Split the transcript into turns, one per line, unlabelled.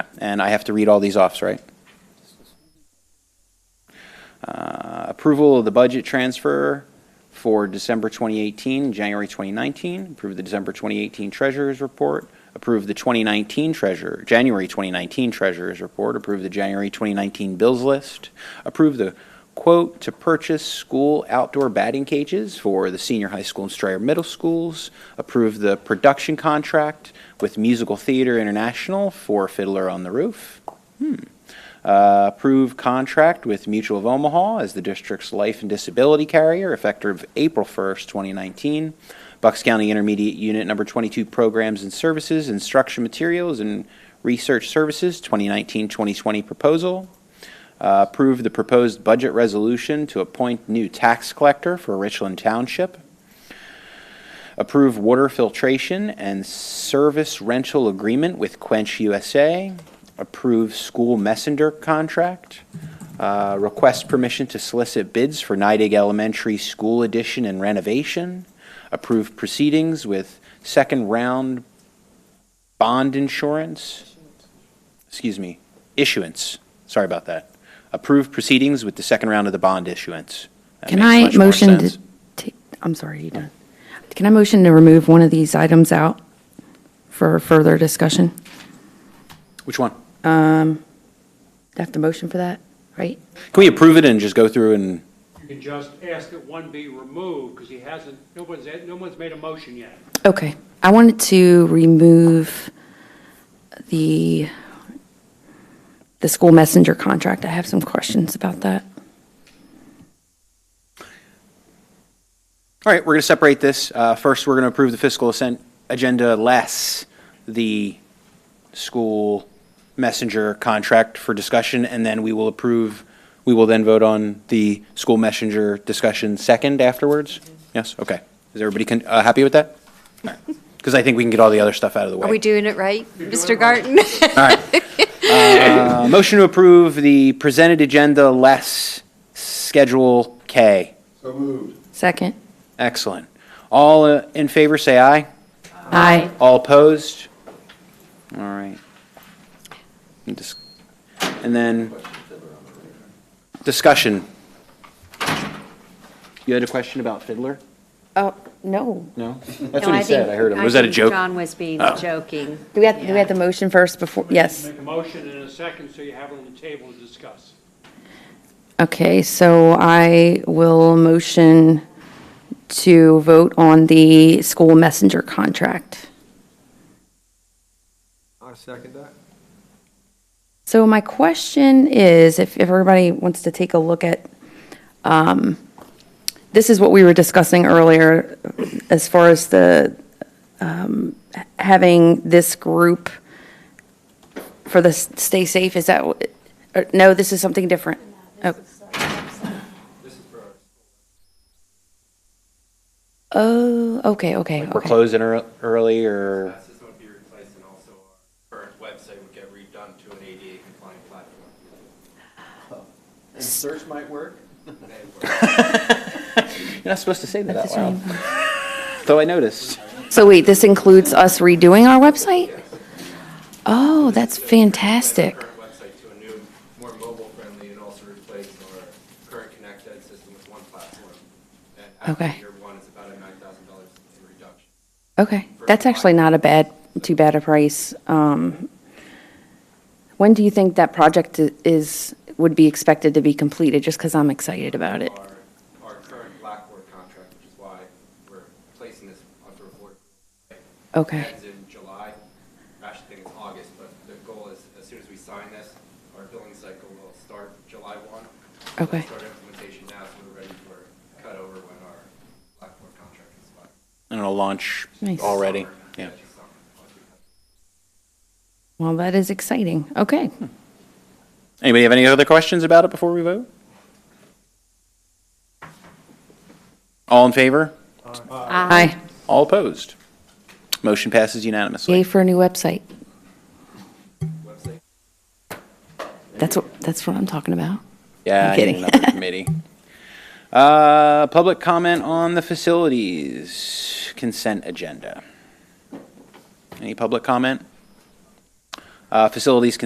and I have to read all these offs, right? Uh, Approval of the budget transfer for December 2018, January 2019. Approve the December 2018 Treasurers Report. Approve the 2019 Treasurer, January 2019 Treasurers Report. Approve the January 2019 Bills List. Approve the quote to purchase school outdoor batting cages for the senior high school and Strayer Middle Schools. Approve the production contract with Musical Theater International for Fiddler on the Roof. Uh, Approve contract with Mutual of Omaha as the district's life and disability carrier effective April 1st, 2019. Bucks County Intermediate Unit Number 22 Programs and Services, Instruction Materials and Research Services, 2019-2020 proposal. Uh, Approve the proposed budget resolution to appoint new tax collector for Richland Township. Approve water filtration and service rental agreement with Quench USA approve school messenger contract, uh, request permission to solicit bids for Nidec Elementary School addition and renovation, approve proceedings with second round bond insurance, excuse me, issuance, sorry about that. Approve proceedings with the second round of the bond issuance. That
Can
makes
I
much more
motion to
sense.
take, I'm sorry, you done. Can I motion to remove one of these items out for further discussion?
Which one?
Do I have to motion for that, right?
Can we approve it and just go through and,
You can just ask that one be removed, because he hasn't, no one's, no one's made a motion yet.
Okay. I wanted to remove the, the school messenger contract. I have some questions about that.
all right, we're going to separate this. Uh, First, we're going to approve the fiscal assent agenda less the school messenger contract for discussion, and then we will approve, we will then vote on the school messenger discussion second afterwards? Yes, okay. Is everybody con- uh, happy with that? Because I think we can get all the other stuff out of the way.
Are we doing it right, Mr. Garten?
Uh, Motion to approve the presented agenda less Schedule K.
Second?
Excellent. All uh, in favor, say aye.
Aye.
All opposed? All right. And dis- and then, discussion. You had a question about Fiddler?
Oh, no.
No? That's what he said, I uh, heard him. Was that a
think
joke? Oh.
John was being joking.
Do we have, do we have the motion first before, yes?
Make a motion in a second, so you have it on the table to discuss.
Okay, so I will motion to vote on the school messenger contract.
I second that.
So my question is, if if everybody wants to take a look at, um, this is what we were discussing earlier as far as the, um, h- having this group for the s- Stay Safe, is that, what- or- no, this is something different? Oh. Oh, okay, okay,
We're
okay.
closing ear- early, or,
That system would be replaced and also our current website would get redone to an ADA compliant platform.
And search might work?
you're not supposed to say that out loud. Though I noticed.
So wait, this includes us redoing our website? Oh, that's fantastic.
Current website to a new, more mobile friendly and also replace our current Connect Ed system with one platform. And after
Okay.
Year one, it's about a nine thousand dollars reduction.
Okay, that's actually not a bad, too bad a price. Um, When do you think that project i- is, would be expected to be completed, just because I'm excited about it?
Our, our current Blackboard contract, which is why we're placing this under board.
Okay,
Ends in July. I Actually, think it's August, but the goal is, as soon as we sign this, our billing cycle will start July one. So
Okay.
Start implementation now, so we're ready for cutover when our Blackboard contract is filed.
And it'll launch
Nice.
already, yeah.
well, that is exciting. Okay,
Anybody have any other questions about it before we vote? All in favor?
aye.
All opposed? Motion passes unanimously.
Yay for a new website.
Website
That's, what that's what I'm talking about.
Yeah,
I'm
I need
kidding.
another committee. Uh, Public comment on the facilities consent agenda. Any public comment? Uh, Facilities